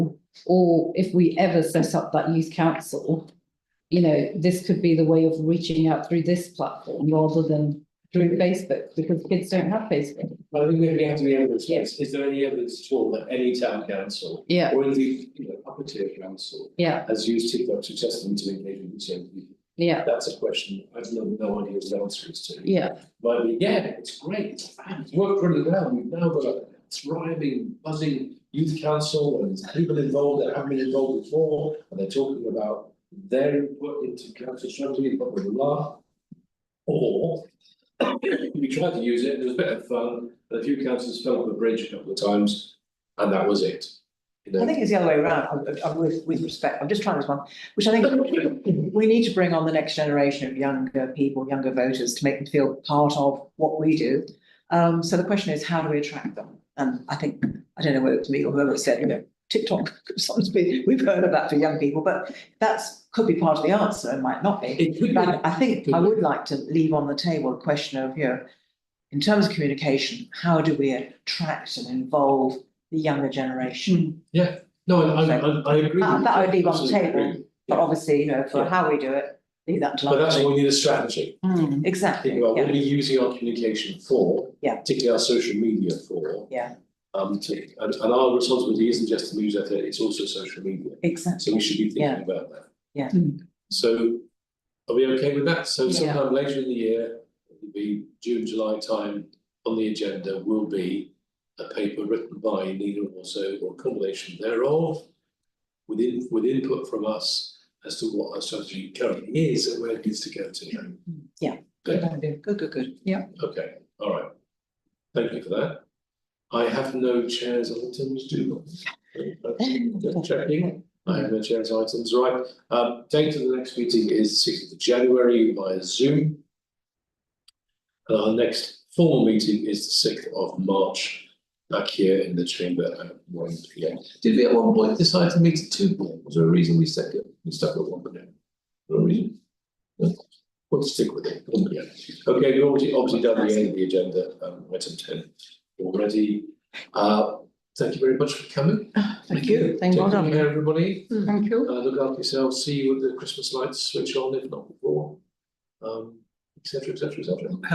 or if we ever set up that youth council, you know, this could be the way of reaching out through this platform rather than through Facebook, because kids don't have Facebook. I think we have to be evidence based, is there any evidence at all that any town council Yeah, or indeed, you know, upper tier council yeah, has used TikTok to test them to engage with young people? yeah, That's a question I've no, no idea what the answer is to. yeah, But yeah, it's great, it's fab, it's worked really well, we've now got a thriving, buzzing youth council and there's people involved that haven't been involved before. And they're talking about their input into council strategy, blah, blah, blah. Or we tried to use it, it was a bit of fun, but a few councils fell off the bridge a couple of times and that was it. You know, I think it's the other way around, I- I- with, with respect, I'm just trying this one, which I think we need to bring on the next generation of younger people, younger voters, to make them feel part of what we do. Um, so the question is, how do we attract them? And I think, I don't know whether it's me or whoever said, you know, TikTok could sometimes be, we've heard of that for young people, but that's, could be part of the answer, and might not be. It could be. But I think I would like to leave on the table a question of, you know, in terms of communication, how do we attract and involve the younger generation? No, I, I, I- I agree. That- with that you. would leave on the Absolutely table. agree. But obviously, you know, for Yeah. how we do it, leave that to. But that's London. why we need a strategy. mm, Exactly, think about what yeah, we're using our communication for. Yeah. Particularly our social media for. Yeah. Um, to, and, and our responsibility isn't just the newsletter, it's also social media, exactly. so we should be Yeah. thinking about that. Yeah. Hmm. So, are we okay with that? So Yeah. sometime later in the year, it'll be June, July time, on the agenda will be a paper written by Nina also, or a combination thereof, with in, with input from us as to what our strategy currently is and where it needs to go to. Yeah. Okay. Good, good, good. Okay, all right. Thank you for that. I have no chairs items, do not. Just Checking, I have no chairs items, right. Um, date of the next meeting is sixth of January via Zoom. And our next formal meeting is the sixth of March, back here in the chamber at one P M. Did we at one point decide to meet at two P M? Was there a reason we stuck it, we stuck at one P M? No reason? No. We'll stick with it, one P M. Okay, we've already, obviously done the end of the agenda, um, item ten already. Uh, thank you very much for coming. Ah, Thank you, thank you, Mm, well Taking done. care, everybody. thank you. Uh, look after yourselves, see you with the Christmas lights switch on, if not before. Um, et cetera, et cetera, et cetera.